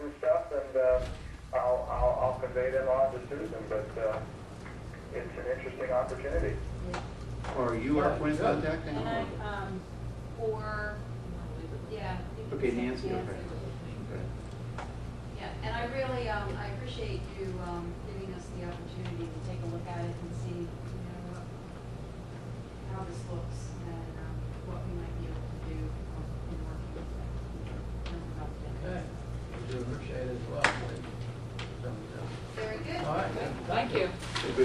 uh, convey them on to Susan, but, uh, it's an interesting opportunity. Or you are point of contact And now? I, um, or, yeah. you can Okay, say Nancy, okay. Okay. um, Yeah, and I really, um, I appreciate you, um, giving us the opportunity to take a look at it and um, see, you know, what- how this looks.